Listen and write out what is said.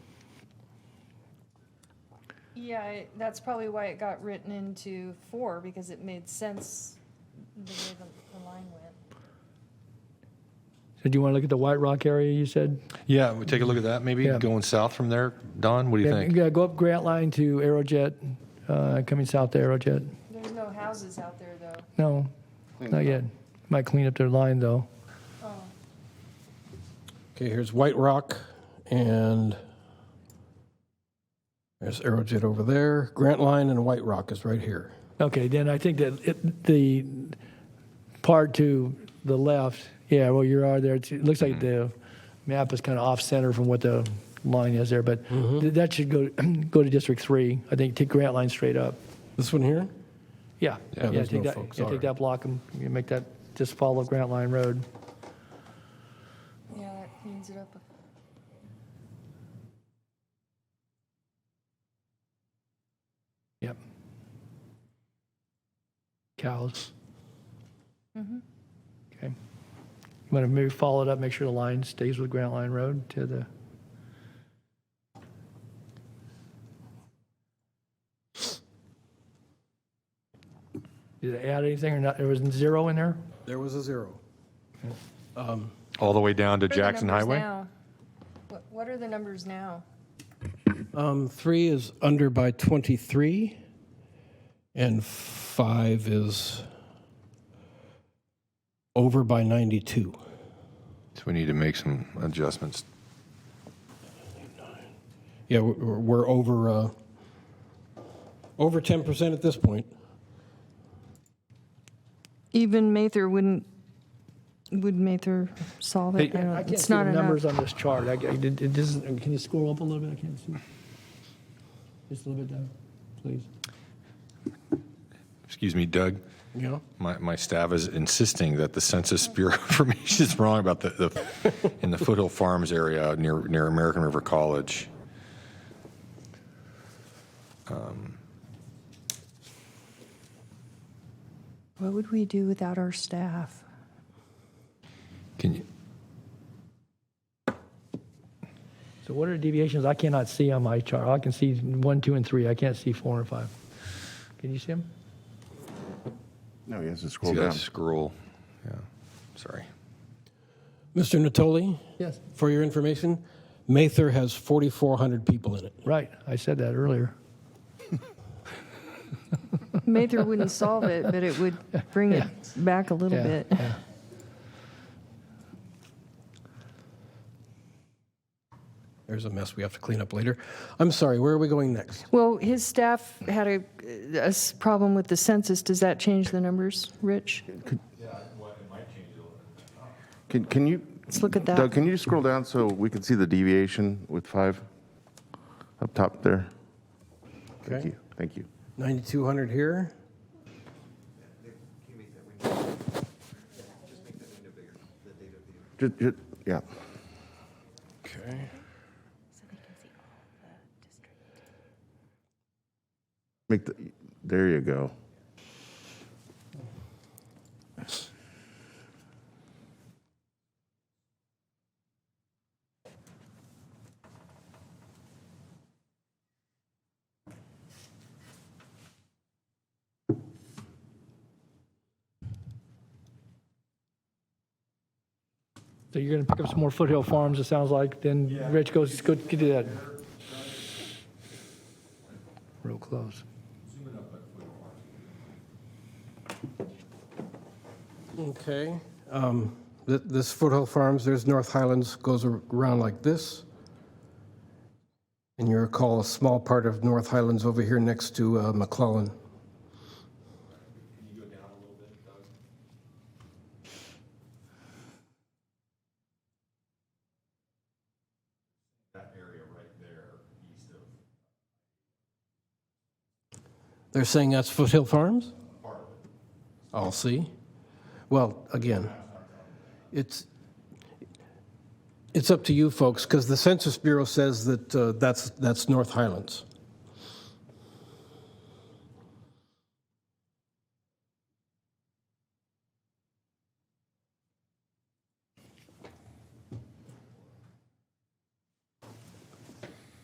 Yeah, it- that's probably why it got written into four, because it made sense the way the, the line went. So do you want to look at the White Rock area, you said? Yeah, we take a look at that maybe Yeah. going south from there. Don, what do you Yeah, think? yeah, go up Grant Line to Aerojet, uh, coming south to Aerojet. There's no houses out there, though. No, not yet. Might clean up their line, though. Oh, Okay, here's White Rock, and there's Aerojet over there. Grant Line and White Rock is right here. Okay, then I think that it, the part to the left, yeah, well, you are there. It's- It looks Mm-hmm. like the map is kind of off center from what the line is there, but Mm-hmm. th- that should go go to District Three. I think take Grant Line straight up. This one here? Yeah, Yeah, there's take no that, folks, yeah, all take right. that block and you make that just follow Grant Line Road. yeah, that cleans it up. Yep. Cows. Mm-hmm. Okay. You want to maybe follow it up, make sure the line stays with Grant Line Road to the, did it add anything or not? There was zero in there? There was a zero. All the way down to What are the Jackson numbers Highway? now? What, what are the numbers now? Um, three is under by 23, and five is over by 92. So we need to make some adjustments. Yeah, we're, we're- we're over uh, over 10% at this point. Even Mather wouldn't, would Mather solve it? I I don't, can't it's see the not numbers enough. on this chart. I, I- it it doesn't, can you scroll up a little bit? I can't see. Just a little bit down, please. Excuse me, Doug. Yeah. My, my staff is insisting that the Census Bureau information is wrong about the, the in the Foothill Farms area out near near American River College. What would we do without our staff? Can you? So what are deviations I cannot see on my chart? I can see one, two, and three. I can't see four and five. Can you see them? No, he has to See scroll that down. scroll. Yeah. Sorry. Mr. Natoli, Yes. for your information, Mather has 4,400 people in it. Right. I said that earlier. Mather wouldn't solve it, but it would bring it back a little Yeah, bit. yeah. There's a mess we have to clean up later. I'm sorry, where are we going next? Well, his staff had a, a s- problem with the census. Does that change the numbers, Rich? Can, can you, Let's look at Doug, that. can you just scroll down so we can see the deviation with five up top there? Thank Okay. you, thank you. 9,200 here. Ju- ju- Yeah, Okay. make the, there you go. So you're going to pick up some more foothill farms, it sounds like. Then Rich goes, go get to that. Real close. Okay. Um, th- this Foothill Farms, there's North Highlands, goes ar- around like this. And you recall a small part of North Highlands over here next to uh, McClellan. They're saying that's Foothill Farms? I'll see. Well, again, it's, it's up to you folks, because the Census Bureau says that uh, that's, that's North Highlands.